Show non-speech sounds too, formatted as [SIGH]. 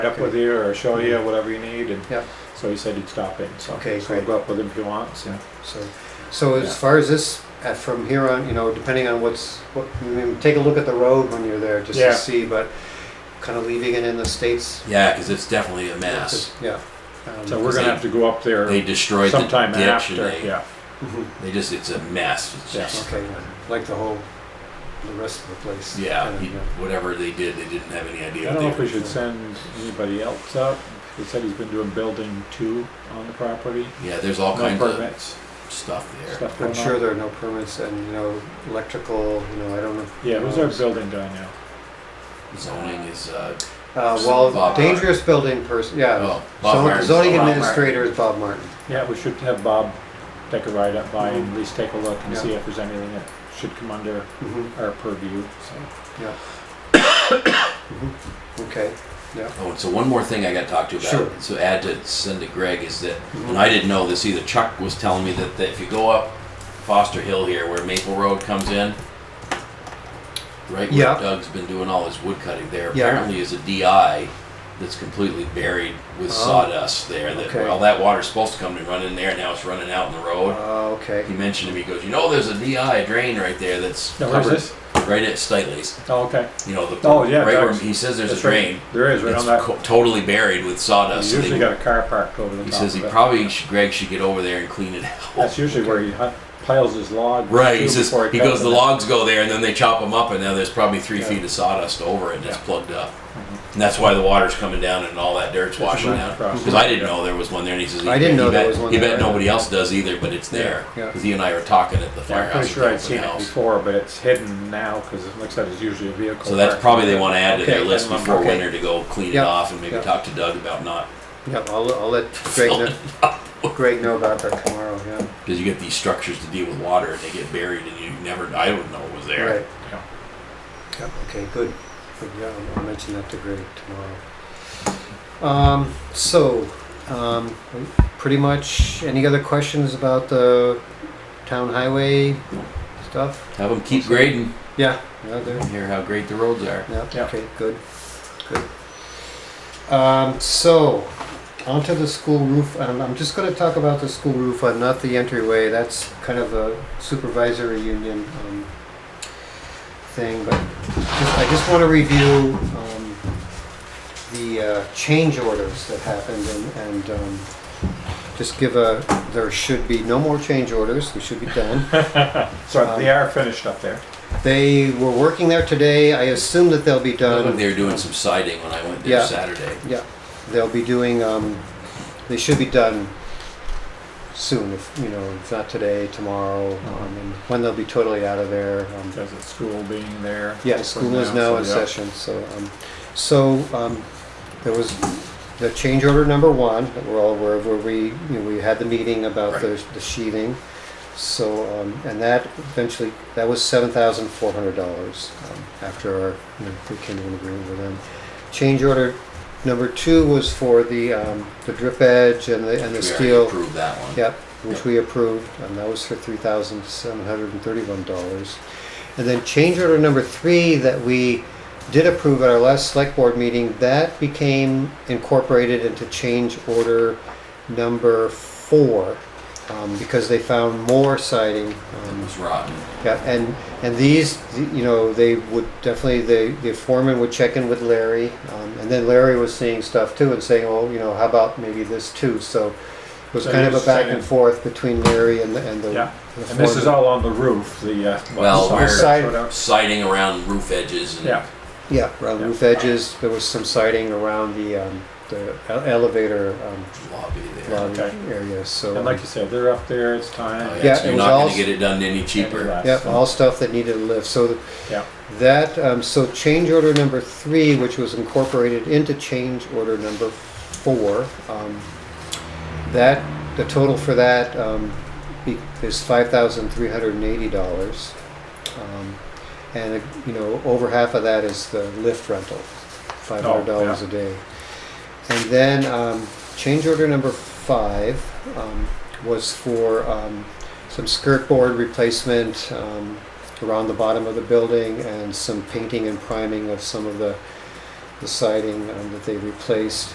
up with you or show you whatever you need, and Yeah. so he said he'd stop in, so. Okay, So I'll great. go up with him if he wants, and So, so as Yeah. far as this, uh, from here on, you know, depending on what's, what, I mean, take a look at the road when you're there just Yeah. to see, but kind of leaving it in the states. Yeah, because it's definitely a mess. Yeah. Um, so we're gonna have to go up They there destroyed the sometime ditch after, and they, yeah. mhm, they just, it's a mess. It's Yeah. just, Okay, yeah, like the whole, the rest of the place. yeah, kinda, he- whatever they did, they didn't have any I idea. don't what know if they we were should send anybody else up, he said he's been doing building two on the property, Yeah, there's all no kinds permits, of stuff there. stuff going I'm on. sure there are no permits and, you know, electrical, you know, I don't know. Yeah, who's our building guy now? Zoning is, uh, Uh, well, Bob dangerous building person, yeah. oh, Bob So Martin's zoning the- Bob administrator is Bob Martin. Yeah, we should have Bob take a ride up by and at least take a look and Yeah. see if there's anything that should come under Mhm, our purview, so. Okay, Oh, and so one more thing I got to talk to you about. Sure. So add to send to Greg is that, Mhm. Mm-hmm. and I didn't know this either. Chuck was telling me that, that if you go up Foster Hill here, where Maple Road comes in, right where Yeah. Doug's been doing all his wood cutting there, Yeah. apparently is a DI that's completely buried with Oh. sawdust there. That Okay. well, that water's supposed to come and run in there, now it's running out in the road. Uh, okay. He mentioned to me, he goes, you know, there's a DI drain right there that's Now, where's covered this? right at Stiley's. Oh, okay. You know, the Oh, yeah, right where Doug's. he says there's That's a drain. right. There is, right It's on that. co- totally buried with sawdust. You so usually they- got a car parked over the he top says he of it. probably should, Greg should get over there and clean it That's out. usually where he hu- piles his log. [LAUGHS] Right, too, he says before he cuts goes. The it. logs go there, and then they chop them up, and now there's probably three Yeah. feet of sawdust over it, and it's Yeah. Mm-hmm. plugged up. And that's why the water's coming down, and all that dirt's a washing running out. process. Because I didn't know there was one there, and he says he, I didn't he know bet, there was one he there bet either. nobody else does either, but it's there. Yeah, yeah. Because he and I were talking at the Yeah, I'm pretty firehouse. at sure the I'd open seen it house. before, but it's hidden now because it looks like it's usually a vehicle. So that's parked. probably they want to add to their Okay, list then, before okay. winter to go clean Yeah, it off, and maybe yeah. talk to Doug about not Yep, I'll, I'll let Greg know, Greg know about that tomorrow, yeah. because you get these structures to deal with water, and they get buried, and you never. I don't know it was there. Right, Yeah. yep, okay, good. Good, yeah, I'll- I'll mention that to Greg tomorrow. Um, so, um, pretty much, any other questions about the town highway stuff? Have them keep grading. Yeah, yeah, there, Hear how great the roads are. yeah, Yeah. okay, good, good. Um, so, onto the school roof, um, I'm just gonna talk about the school roof, uh, not the entryway, that's kind of a supervisory union, um, thing, but just, I just wanna review, um, the, uh, change orders that happened and, and, um, just give a, there should be no more change orders, we should be done. So Um, they are finished up there. They were working there today, I assume that they'll be I done. think they were doing some siding when I went there Yeah. Saturday. Yeah, they'll be doing, um, they should be done soon, if, you know, if not today, tomorrow, um, and when they'll be totally out of there. um, Because it's school being there. Yeah, school is now in so, yeah. session, so, um, so, um, there was the change order number one, that we're all aware of, where we, you know, we had the meeting about the the sheathing. So, um, and that eventually, that was seven thousand four hundred dollars, um, after our, you know, we came to an agreement with them. Change order number two was for the, um, the drip edge and the, and the We steel. already approved that one. Yep, which we approved, and that was for three thousand seven hundred and thirty-one dollars. And then change order number three that we did approve at our last select board meeting, that became incorporated into change order number four, um, because they found more siding, It um, was rotten. yeah, and, and these, you know, they would definitely, the, the foreman would check in with Larry, um, and then Larry was seeing stuff too and saying, well, you know, how about maybe this too? So it was So kind of you're a back saying- and forth between Larry and the, and the. Yeah. the And this is foreman. all on the roof, the. uh, Well, side- we're- Side- sort of. Siding around roof edges and Yeah, Yeah, around Yeah. roof edges, there was some siding around the, um, the ele- elevator, um, lobby there. lobby Okay. area, so. and um, like you said, they're up there, it's Oh, time. Yeah, so it you're was not going all- to get it done any cheaper. last. Yeah, all stuff that needed a lift, so the- Yeah, That, um, so change order number three, which was incorporated into change order number four, um, that, the total for that, um, be- is five thousand three hundred and eighty dollars. And, uh, you know, over half of that is the lift rental, five hundred dollars yeah. a day. And then, um, change order number five, um, was for, um, some skirt board replacement, um, around the bottom of the building and some painting and priming of some of the the siding um, that they replaced.